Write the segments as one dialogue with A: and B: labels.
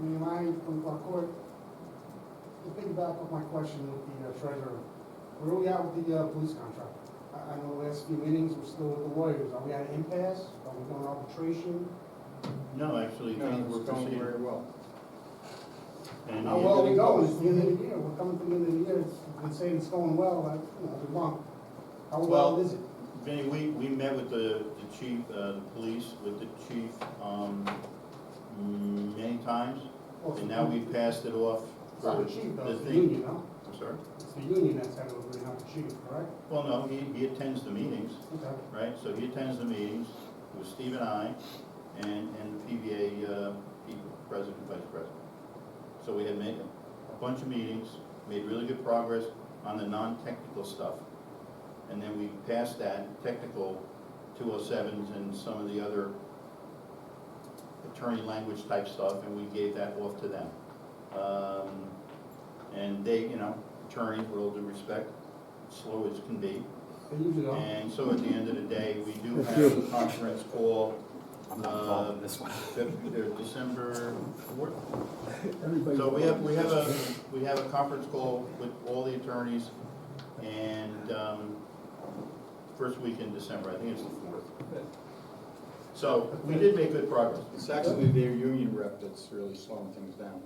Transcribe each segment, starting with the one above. A: in my, in my court, the thing back of my question with the uh, treasurer, where are we at with the uh, police contract? I, I know the last few meetings, we're still with the lawyers, are we at an impasse, are we going arbitration?
B: No, actually, things were proceeding.
C: well.
B: And
A: How
B: he-
A: Oh, well we go, it's the end of the year, we're coming to the end of the year, it's, you can say it's going well, but, you know, we're wrong. How well
B: Well-
A: is it?
B: Vinny, we, we met with the, the chief, uh, the police, with the chief, um, mm, many times,
A: Well,
B: and now we passed it off.
A: It's
B: for
A: not Oh, the chief, though,
B: the
A: it's the
B: thing-
A: union, no?
B: I'm sorry?
A: It's the union that's had it, over, not the chief, correct?
B: Well, no, he, he attends the meetings,
A: Okay.
B: right? So he attends the meetings with Steve and I, and, and the PVA, uh, people, president, vice president. So we had made a bunch of meetings, made really good progress on the non-technical stuff. And then we passed that technical two oh sevens and some of the other attorney language type stuff, and we gave that off to them. Um, And they, you know, attorneys, with all due respect, slow as can be,
A: They usually are.
B: and so at the end of the day, we do have a conference call,
D: I'm
B: not involved in
D: this one.
B: Feb- uh, December fourth.
C: Everybody.
B: So we have, we have a, we have a conference call with all the attorneys, and, um, first week in December, I think it's the fourth. So, we did make good progress.
C: It's actually their union rep that's really slowing things down.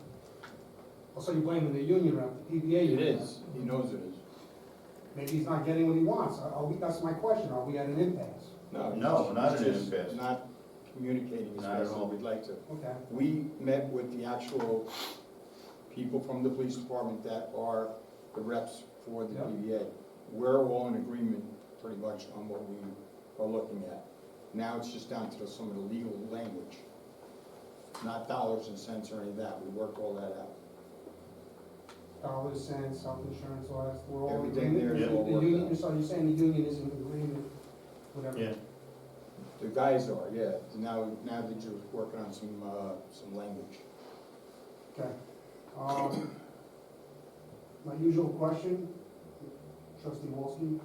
A: Also, Oh, you're blaming the union rep, the PBA
C: It
A: union.
C: is, he knows it is.
A: Maybe he's not getting what he wants. Are are we, that's my question, are we at an impasse?
C: No,
B: No, not
C: it's
B: an
C: just
B: impasse.
C: Not communicating as
B: Not at
C: best as
B: all.
C: we'd like to.
A: Okay,
C: We met with the actual people from the police department that are the reps for the
A: Yeah.
C: PVA. We're all in agreement pretty much on what we are looking at. Now it's just down to some of the legal language, not dollars and cents or any of that. We worked all that out.
A: dollars, cents, health insurance, all that, we're all in
C: Everything there
A: agreement?
C: is
A: The
C: all worked
A: union,
C: out.
A: so you're saying the union is in agreement, whatever?
B: Yeah,
C: The guys are, yeah. Now, now that you're working on some, uh, some language.
A: Okay. Um, My usual question, trustee Wolski,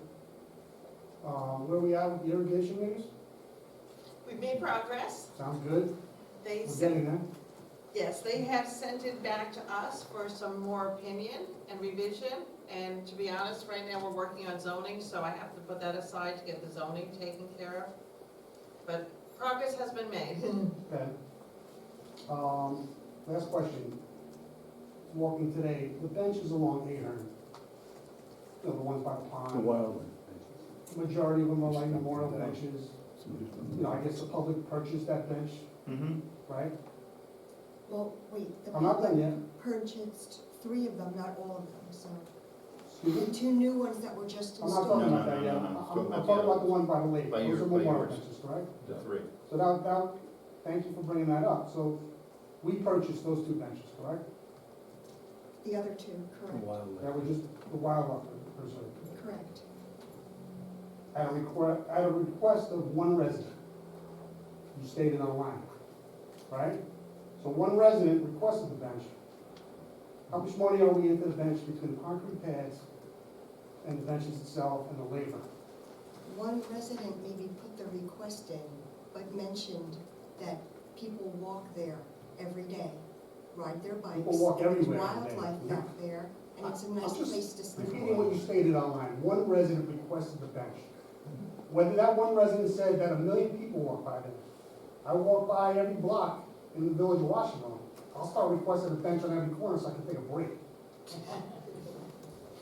A: uh, where we at with the irrigation meters?
E: We've made progress.
A: Sounds good,
E: They,
A: we're
E: sent-
A: getting there.
E: yes, they have sent it back to us for some more opinion and revision. And to be honest, right now, we're working on zoning, so I have to put that aside to get the zoning taken care of. But progress has been made.
A: Okay. Um, last question. Walking today, the benches along Ahern, you know, the ones by the
F: The
A: pond,
F: wild one.
A: majority of them are like memorial benches. You know, I guess the public purchased that bench,
B: mm-hmm,
A: right?
G: Well, wait, the
A: I'm not done
G: public
A: yet.
G: purchased three of them, not all of them, so.
A: Excuse
G: The
A: me?
G: two new ones that were just
A: I'm not talking
G: installed.
A: about that yet.
B: No,
A: I'm,
B: no, no, no, no.
A: I'm talking about the one by the lake.
B: By your-
A: Those are
B: by
A: memorial
B: yours.
A: benches, correct?
B: the three.
A: So that, that, thank you for bringing that up. So we purchased those two benches, correct?
G: The other two, correct,
A: That were just the wildlife preserve.
G: correct.
A: at a request, at a request of one resident. You stated online, right? So one resident requested the bench. How much money are we into the bench between the concrete pads and the benches itself and the labor?
G: One resident maybe put the request in, but mentioned that people walk there every day, ride their bikes.
A: People walk everywhere every
G: There's
A: day.
G: wildlife
A: Yeah.
G: back there, and it's a
A: I'm
G: nice
A: just
G: place to sleep.
A: Repeating what you stated online, one resident requested the bench. Whether that one resident said that a million people walk by there, I walk by every block in the village of Washington, I'll start requesting a bench on every corner so I can take a break.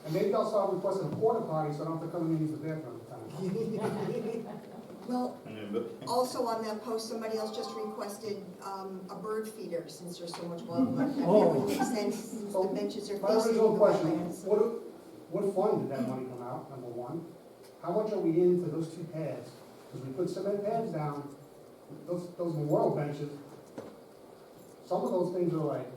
A: And maybe I'll start requesting a porta potty so I don't have to come in and use the bathroom every time.
G: Well,
B: And then, but,
G: also on that post, somebody else just requested, um, a bird feeder, since there's so much wildlife. back there. It would make sense, since the
A: So,
G: benches are facing the
A: My original question,
G: wetlands.
A: what, what fund did that money come out, number one? How much are we into those two pads? Because we put cement pads down, those, those memorial benches, some of those things are like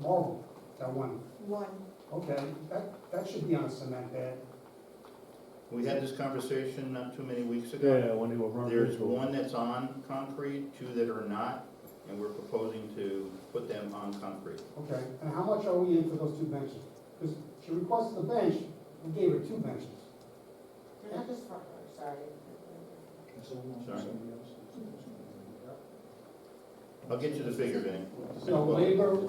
A: marble, that one.
G: One.
A: Okay, that, that should be on a cement pad.
B: we had this conversation not too many weeks ago.
F: Yeah, when they were running.
B: There's one that's on concrete, two that are not, and we're proposing to put them on concrete.
A: Okay, and how much are we into those two benches? Because she requested a bench, we gave her two benches.
H: They're not just front row, sorry.
B: Sorry. I'll get you the figure, Vinny.
A: So labor,